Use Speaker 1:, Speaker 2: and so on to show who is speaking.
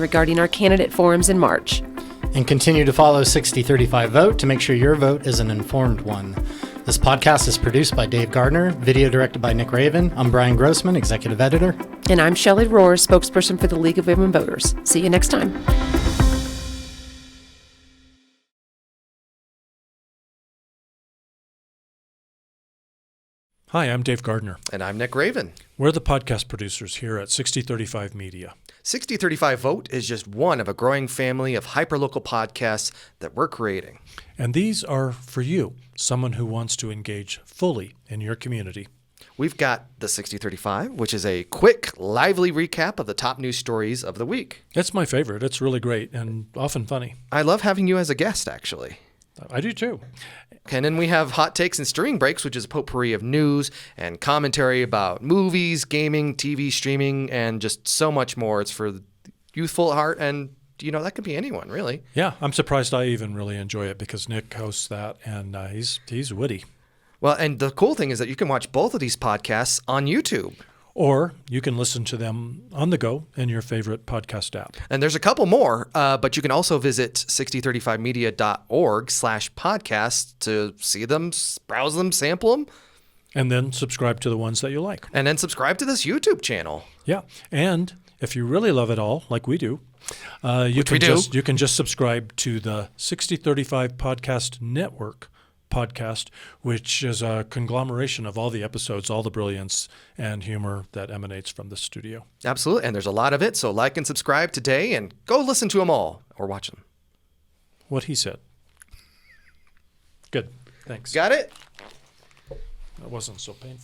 Speaker 1: regarding our candidate forums in March.
Speaker 2: And continue to follow 6035 Vote to make sure your vote is an informed one. This podcast is produced by Dave Gardner, video directed by Nick Raven. I'm Brian Grossman, executive editor.
Speaker 1: And I'm Shelley Rohr, spokesperson for the League of Women Voters. See you next time.
Speaker 3: Hi, I'm Dave Gardner.
Speaker 4: And I'm Nick Raven.
Speaker 3: We're the podcast producers here at 6035 Media.
Speaker 4: 6035 Vote is just one of a growing family of hyperlocal podcasts that we're creating.
Speaker 3: And these are for you, someone who wants to engage fully in your community.
Speaker 4: We've got the 6035, which is a quick, lively recap of the top news stories of the week.
Speaker 3: It's my favorite. It's really great and often funny.
Speaker 4: I love having you as a guest, actually.
Speaker 3: I do too.
Speaker 4: And then we have Hot Takes and Steering Breaks, which is a potpourri of news and commentary about movies, gaming, TV, streaming, and just so much more. It's for the youthful at heart, and you know that could be anyone, really.
Speaker 3: Yeah, I'm surprised I even really enjoy it because Nick hosts that, and uh, he's he's witty.
Speaker 4: Well, and the cool thing is that you can watch both of these podcasts on YouTube.
Speaker 3: Or you can listen to them on the go in your favorite podcast app.
Speaker 4: And there's a couple more, uh, but you can also visit 6035media.org slash podcast to see them, browse them, sample them,
Speaker 3: And then subscribe to the ones that you like.
Speaker 4: and then subscribe to this YouTube channel.
Speaker 3: Yeah. And if you really love it all, like we do, uh, you can
Speaker 4: we do.
Speaker 3: just you can just subscribe to the 6035 Podcast Network podcast, which is a conglomeration of all the episodes, all the brilliance and humor that emanates from the studio.
Speaker 4: Absolutely. And there's a lot of it. So like and subscribe today and go listen to them all or watch them.
Speaker 3: What he said. Good. Thanks.
Speaker 4: Got it?
Speaker 3: That wasn't so painful.